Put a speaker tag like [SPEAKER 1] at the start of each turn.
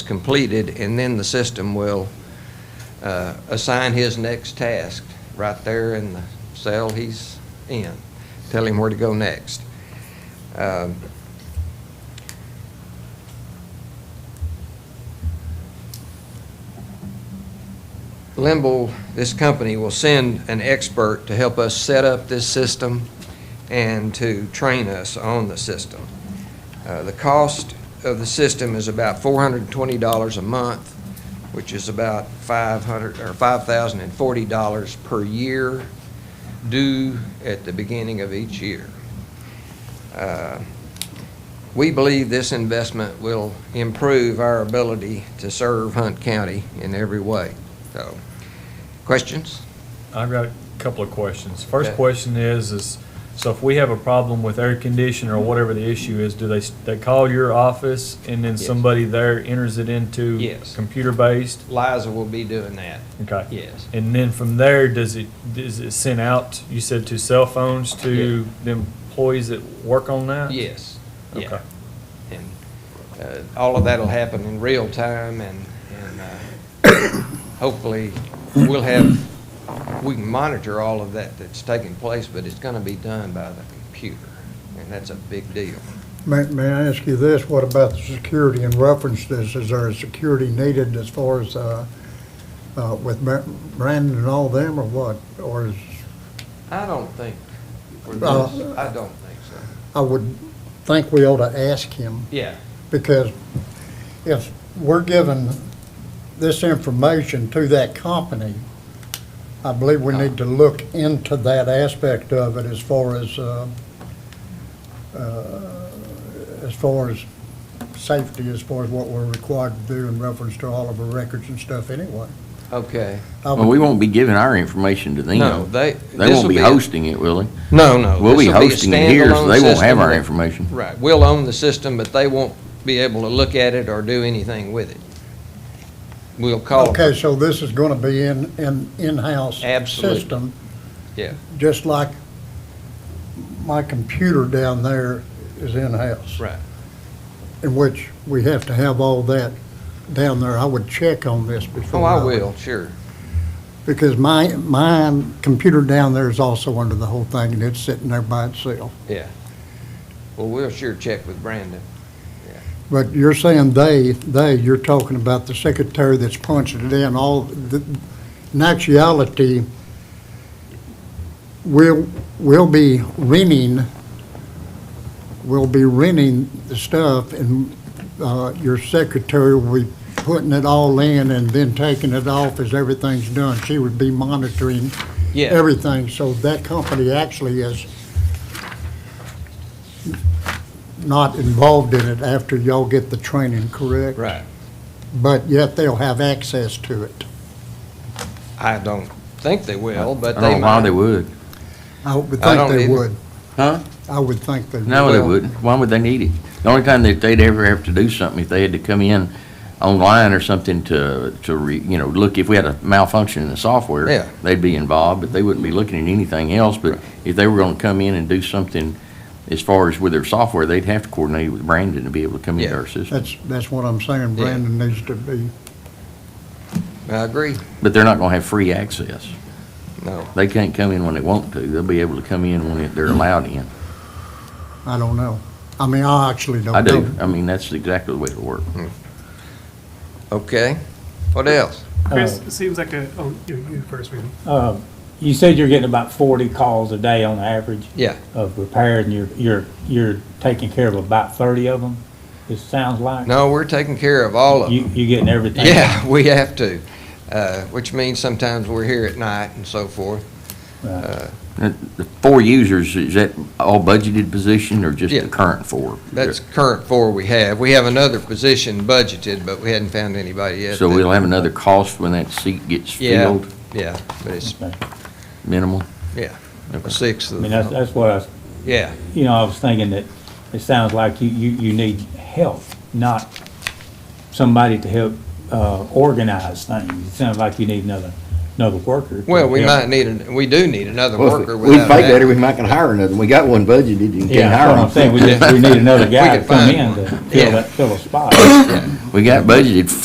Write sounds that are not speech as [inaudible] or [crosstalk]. [SPEAKER 1] completed, and then the system will uh, assign his next task right there in the cell he's in, tell him where to go next. Um, Limble, this company, will send an expert to help us set up this system and to train us on the system. Uh, The cost of the system is about $420 a month, which is about 500, or $5,040 per year due at the beginning of each year. Uh, We believe this investment will improve our ability to serve Hunt County in every way. So, questions?
[SPEAKER 2] I've got a couple of questions. First
[SPEAKER 1] Okay.
[SPEAKER 2] question is, is, so if we have a problem with air conditioner or whatever the issue is, do they, s- they call your office and then
[SPEAKER 1] Yes.
[SPEAKER 2] somebody there enters it into?
[SPEAKER 1] Yes.
[SPEAKER 2] Computer-based?
[SPEAKER 1] Liza will be doing that.
[SPEAKER 2] Okay.
[SPEAKER 1] Yes.
[SPEAKER 2] And then from there, does it, is it sent out, you said to cell phones, to the employees that work on that?
[SPEAKER 1] Yes. yeah.
[SPEAKER 2] Okay.
[SPEAKER 1] And uh, all of that'll happen in real time and, and uh, hopefully we'll have, we can monitor all of that that's taking place, but it's gonna be done by the computer. And that's a big deal.
[SPEAKER 3] May, may I ask you this, what about the security in reference to this? Is there a security needed as far as, uh, uh, with Bra- Brandon and all them or what? Or is,
[SPEAKER 1] I don't think, for this,
[SPEAKER 3] Uh,
[SPEAKER 1] I don't think so.
[SPEAKER 3] I would think we ought to ask him
[SPEAKER 1] Yeah,
[SPEAKER 3] because if we're giving this information to that company, I believe we need to look into that aspect of it as far as, uh, uh, as far as safety, as far as what we're required to do in reference to all of our records and stuff anyway.
[SPEAKER 1] okay.
[SPEAKER 3] I
[SPEAKER 4] Well,
[SPEAKER 3] would-
[SPEAKER 4] we won't be giving our information to them.
[SPEAKER 1] No, they-
[SPEAKER 4] They
[SPEAKER 1] this'll
[SPEAKER 4] won't be
[SPEAKER 1] be a-
[SPEAKER 4] hosting it, will they?
[SPEAKER 1] No, no.
[SPEAKER 4] We'll be
[SPEAKER 1] this'll a
[SPEAKER 4] hosting it here, so
[SPEAKER 1] standalone
[SPEAKER 4] they won't have
[SPEAKER 1] system
[SPEAKER 4] our
[SPEAKER 1] that-
[SPEAKER 4] information.
[SPEAKER 1] Right, we'll own the system, but they won't be able to look at it or do anything with it. We'll call them.
[SPEAKER 3] Okay, so this is gonna be in, in, in-house
[SPEAKER 1] Absolutely.
[SPEAKER 3] system,
[SPEAKER 1] Yeah,
[SPEAKER 3] just like my computer down there is in-house.
[SPEAKER 1] right.
[SPEAKER 3] in which we have to have all that down there. I would check on this before.
[SPEAKER 1] Oh, I
[SPEAKER 3] would-
[SPEAKER 1] will, sure.
[SPEAKER 3] Because my, my computer down there is also under the whole thing, and it's sitting there by itself.
[SPEAKER 1] Yeah. Well, we'll sure check with Brandon.
[SPEAKER 3] But you're saying they, they, you're talking about the secretary that's punching it in, all, the, in actuality, we'll, we'll be renting, we'll be renting the stuff, and, uh, your secretary will be putting it all in and then taking it off as everything's done. She would be monitoring
[SPEAKER 1] Yeah,
[SPEAKER 3] everything, so that company actually is not involved in it after y'all get the training, correct?
[SPEAKER 1] right.
[SPEAKER 3] But yet they'll have access to it.
[SPEAKER 1] I don't think they will, but
[SPEAKER 4] I
[SPEAKER 1] they
[SPEAKER 4] don't know why they
[SPEAKER 1] might.
[SPEAKER 4] would.
[SPEAKER 3] I would
[SPEAKER 1] I don't
[SPEAKER 3] think they
[SPEAKER 1] either.
[SPEAKER 3] would.
[SPEAKER 4] Huh?
[SPEAKER 3] I would think they would.
[SPEAKER 4] No, they wouldn't. Why would they need it? The only time that they'd ever have to do something, if they had to come in online or something to, to, re- you know, look, if we had a malfunction in the software,
[SPEAKER 1] Yeah.
[SPEAKER 4] they'd be involved, but they wouldn't be looking at anything else. But if they were gonna come in and do something as far as with their software, they'd have to coordinate with Brandon to be able to come into
[SPEAKER 1] Yeah.
[SPEAKER 4] our system.
[SPEAKER 3] That's, that's what I'm saying,
[SPEAKER 1] Yeah.
[SPEAKER 3] Brandon needs to be,
[SPEAKER 1] I agree.
[SPEAKER 4] But they're not gonna have free access.
[SPEAKER 1] No.
[SPEAKER 4] They can't come in when they want to. They'll be able to come in when they're allowed in.
[SPEAKER 3] I don't know. I mean, I actually
[SPEAKER 1] Oh,
[SPEAKER 3] don't know.
[SPEAKER 4] I do. I mean, that's exactly the way it'll work.
[SPEAKER 1] Okay. What else?
[SPEAKER 5] Chris,
[SPEAKER 6] Uh,
[SPEAKER 5] it seems like a, oh, you, you first, William.
[SPEAKER 6] Uh, You said you're getting about forty calls a day on average
[SPEAKER 1] Yeah,
[SPEAKER 6] of repair, and you're, you're, you're taking care of about thirty of them, it sounds like?
[SPEAKER 1] no, we're taking care of all of them.
[SPEAKER 6] You, you getting everything?
[SPEAKER 1] Yeah, [laughs] we have to, uh, which means sometimes we're here at night and so forth.
[SPEAKER 6] Right.
[SPEAKER 4] Uh, The four users, is that all budgeted position or just
[SPEAKER 1] Yeah.
[SPEAKER 4] the current four?
[SPEAKER 1] That's current four we have. We have another position budgeted, but we hadn't found anybody yet.
[SPEAKER 4] So
[SPEAKER 1] that-
[SPEAKER 4] we'll have another cost when that seat gets
[SPEAKER 1] Yeah.
[SPEAKER 4] filled,
[SPEAKER 1] Yeah, but it's
[SPEAKER 6] Okay.
[SPEAKER 4] minimal?
[SPEAKER 1] a sixth
[SPEAKER 6] I
[SPEAKER 1] of
[SPEAKER 6] mean, that's,
[SPEAKER 1] the,
[SPEAKER 6] that's what I, was-
[SPEAKER 1] yeah,
[SPEAKER 6] you know, I was thinking that it sounds like you, you, you need help, not somebody to help, uh, organize things. It sounds like you need another, another worker. to
[SPEAKER 1] well, we
[SPEAKER 6] help.
[SPEAKER 1] might need, an- we do need another
[SPEAKER 7] Well, if
[SPEAKER 1] worker
[SPEAKER 7] We
[SPEAKER 1] without
[SPEAKER 7] fight
[SPEAKER 1] a
[SPEAKER 7] better,
[SPEAKER 1] doubt.
[SPEAKER 7] we might can hire another. We got one budgeted and
[SPEAKER 6] Yeah,
[SPEAKER 7] can hire
[SPEAKER 6] that's what
[SPEAKER 7] one.
[SPEAKER 6] I'm saying, we just, we need another
[SPEAKER 1] [laughs] We
[SPEAKER 6] guy
[SPEAKER 1] could
[SPEAKER 6] to come
[SPEAKER 1] find
[SPEAKER 6] in
[SPEAKER 1] one.
[SPEAKER 6] to
[SPEAKER 1] [clears throat]
[SPEAKER 6] fill
[SPEAKER 1] Yeah.
[SPEAKER 6] that, fill a spot.
[SPEAKER 4] We got budgeted